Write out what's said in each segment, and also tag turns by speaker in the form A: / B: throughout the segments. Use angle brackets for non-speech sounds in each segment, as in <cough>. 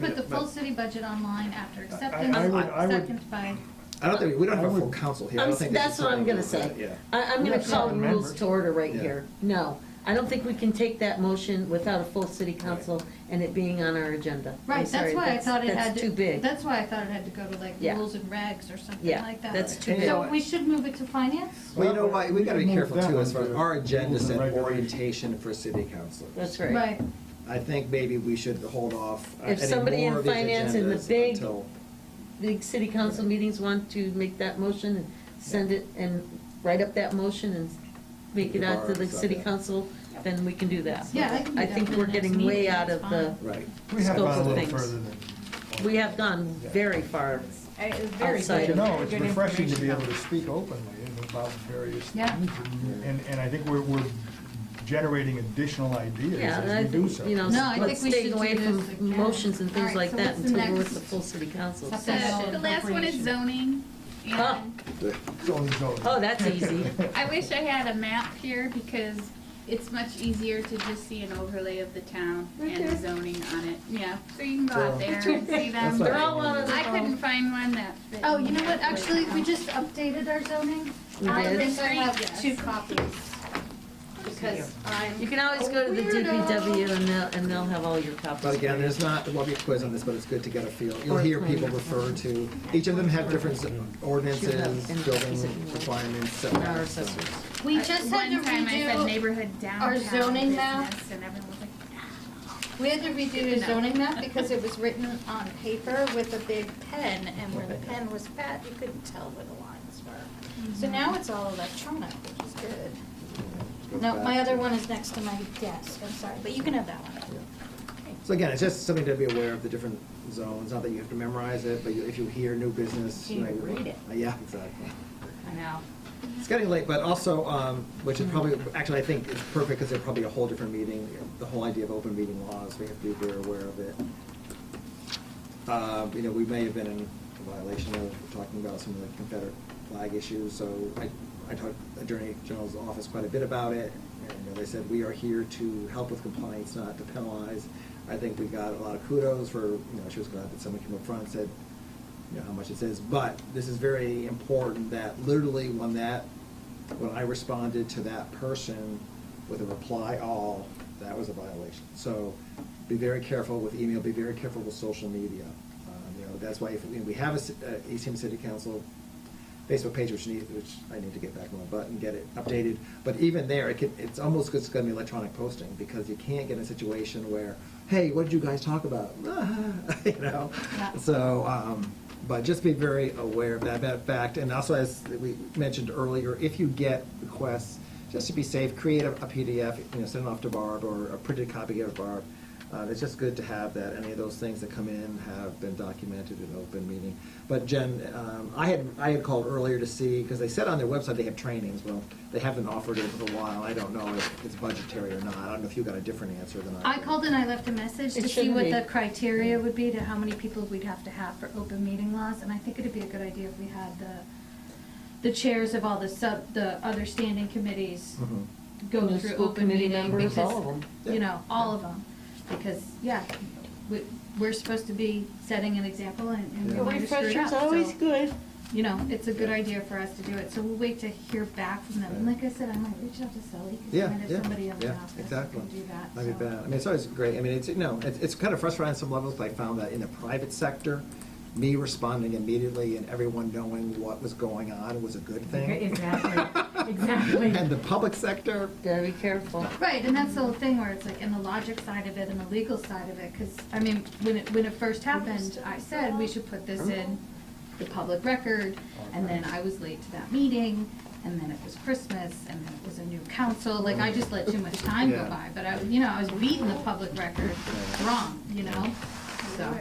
A: Put the
B: Yeah,
A: full
B: but-
A: city budget online after
B: I- I would- I
A: acceptance,
B: would-
A: second by,
B: I don't think, we don't have
C: I
B: a full
C: would-
B: council here. I
D: I'm
B: don't
D: s-
B: think this
D: That's
B: is
D: what I'm
B: something
D: gonna
B: we
D: say.
B: do that,
D: I, I'm
B: We
D: gonna
B: have
D: call
B: seven
D: rules
B: members.
D: to order right
B: Yeah.
D: here. No, I don't think we can take that motion without a full city council and it being on our agenda. I'm
A: right,
D: sorry,
A: that's why I thought it
D: that's
A: had to.
D: too big.
A: That's why I thought it had to go to like
D: Yeah.
A: rules and regs or something
D: Yeah,
A: like that.
D: that's
B: Right.
D: too
B: And you
D: big.
A: So
B: know what?
A: we should move it to finance?
B: Well, you know what, we gotta be
C: Move
B: careful
C: that
B: too, as far as
C: onto
B: our agenda
C: rules and
B: said
C: regulations.
B: orientation for city council.
D: That's right.
A: Right,
B: I think maybe we should hold off uh,
D: If
B: any
D: somebody
B: more
D: in
B: of these
D: finance in the
B: agendas
D: big-
B: until.
D: The city council meetings want to make that motion and send it and write up that motion and make it out to the
B: Barb's
D: city
B: on that.
D: council, then we can do that.
A: Yeah, I can do that
D: think
A: for the
D: we're
A: next
D: getting way
A: meeting,
D: out
A: that's
D: of the
A: fine.
B: Right.
C: We have
D: scope
C: gone a
D: of
C: little
D: things.
C: further than.
D: We have gone very far.
E: I- it was very
C: But
D: Outside.
E: good.
C: you know,
E: very
C: it's
E: good
C: refreshing to be able to
E: information.
C: speak openly and about various
A: Yeah.
C: things. and- And, and I think we're, we're generating additional ideas
D: Yeah, and I
C: as we do
D: think,
C: so.
D: you know,
A: No, I
D: let's
A: think we
D: stay
A: should
D: away
A: do
D: from
A: this again.
D: motions and
A: All
D: things
A: right,
D: like
A: so
D: that
A: what's the
D: until we're with
A: next?
D: the full city council.
A: What's
D: So-
A: that?
E: The the last one is zoning.
D: Huh.
E: And
C: So and so.
D: Oh, that's
B: <laughs>
D: easy.
E: I wish I had a map here because it's much easier to just see an overlay of the town and the zoning on it. Yeah, so you can go out there and see
B: That's
E: them.
B: not-
D: They're all one of
E: I couldn't
D: the,
E: find one that fit.
A: Oh, you know what, actually, we just updated our zoning. I
D: It
A: think
D: is?
A: I have
E: Yes.
A: two copies. Because
D: you
A: I'm,
D: can always go to the DPW and they'll, and they'll have all your copies.
B: But again,
D: for you.
B: there's not, there won't be a quiz on this, but it's good to get a feel. You'll
D: Or
B: hear
D: plan.
B: people refer to, each of them have different ordinances,
D: And-
B: building requirements,
D: Our
B: setbacks.
D: assessors.
A: we just had to
E: Uh, One time I said
A: redo,
E: neighborhood downtown
A: zoning map.
E: business and everyone was like, "Ah."
A: we had to redo the
E: Good enough.
A: zoning
E: <laughs>
A: map because it was written on paper with a big pen, and when the pen was fat, you couldn't tell where the lines were.
E: Mm-hmm.
A: So now it's all electronic, which is good.
B: Goes
A: No,
B: back
A: my
B: to-
A: other one is next to my desk, I'm sorry, but you can have that one.
B: So again, it's just something to be aware of the different zones, not that you have to memorize it, but you- if you hear new business.
A: You
B: know,
A: read it.
B: Uh, Yeah, exactly.
A: I know.
B: It's getting late, but also, um, which is probably, actually, I think it's perfect because they're probably a whole different meeting, the whole idea of open meeting laws, we have to be very aware of it. Uh, you know, we may have been in violation of talking about some of the Confederate flag issues, so I, I talked to Attorney General's office quite a bit about it. And you know, they said, we are here to help with compliance, not to penalize. I think we got a lot of kudos for, you know, she was glad that someone came up front and said, you know, how much it is, but this is very important that literally when that, when I responded to that person with a reply all, that was a violation. So be very careful with email, be very careful with social media. Um, You know, that's why if, you know, we have a, ci- a East Hampton City Council Facebook page, which need, which I need to get back on my butt and get it updated. But even there, it could, it's almost just gonna be electronic posting, because you can't get in a situation where, hey, what did you guys talk about? <laughs> You know?
A: Yeah.
B: So, um, but just be very aware of that, that fact, and also as we mentioned earlier, if you get requests, just to be safe, create a a PDF, you know, send it off to Barb, or a printed copy, give it to Barb. Uh, it's just good to have that, any of those things that come in have been documented in open meeting. But Jen, um, I had, I had called earlier to see, because they said on their website they have trainings, well, they haven't offered it for a while, I don't know if it's budgetary or not, I don't know if you got a different answer than I
A: I
B: did.
A: called and I left a message
D: It
A: to see
D: shouldn't
A: what
D: be.
A: the criteria would be to how many people we'd have to have for open meeting laws, and I think it'd be a good idea if we had the, the chairs of all the sub, the other standing committees
B: Mhm.
A: go
D: And the
A: through
D: school
A: open
D: committee
A: meeting
D: members,
A: because,
D: all of 'em.
B: Yeah.
A: you know, all of them. Because, yeah, we, we're supposed to be setting an example and, and
B: Yeah.
A: we might screw it up,
D: Refresher's
A: so,
D: always good.
A: You know, it's a good idea for us to do it, so we'll wait to hear back from them. And like I said, I might reach out to Sully, because I
B: Yeah,
A: might have
B: yeah,
A: somebody in the
B: yeah,
A: office who
B: exactly.
A: can do that,
B: That'd be
A: so.
B: bad. I mean, it's always great. I mean, it's, you know, it's, it's kind of frustrating on some levels, but I found that in the private sector, me responding immediately and everyone knowing what was going on was a good thing. <laughs>
F: Exactly, exactly.
B: And the public sector,
D: Gotta be careful.
A: Right, and that's the whole thing where it's like in the logic side of it and the legal side of it, because, I mean, when it, when it first happened, I said we should put this in the public record, and then I was late to that meeting, and then it was Christmas, and then it was a new council, like, I just let too much time go
B: Yeah.
A: by, but I, you know, I was beating the public record wrong, you know? So,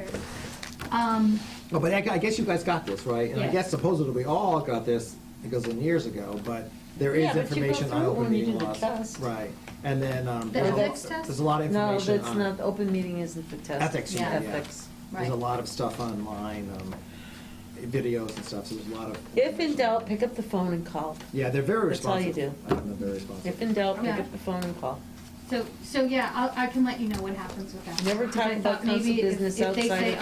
A: um,
B: oh, but I I guess you guys got this, right? And I
A: Yes.
B: guess supposedly we all got this, it goes in years ago, but there is
D: Yeah, but you go
B: information on
D: through it
B: open
D: when you
B: meeking
D: do the
B: laws.
D: test.
B: Right, and then, um,
A: The
B: there's a lot-
A: ethics test?
B: there's a lot of
D: No,
B: information
D: that's
B: on
D: not, the open meeting isn't the test.
B: Ethics,
A: yeah.
B: yeah.
D: Ethics.
B: There's a
A: Right.
B: lot of stuff online, um, videos and stuff, so there's a lot of.
D: If in doubt, pick up the phone and call.
B: Yeah, they're very
D: That's all you
B: responsive. That's all you do. I think they're very responsive.
D: If in doubt, pick
A: Yeah.
D: up the phone and call.
A: So, so yeah, I'll, I can let you know what happens with that.
D: Never talk
A: I thought
D: about council
A: maybe if-
D: business
A: if they
D: outside
A: say,
D: of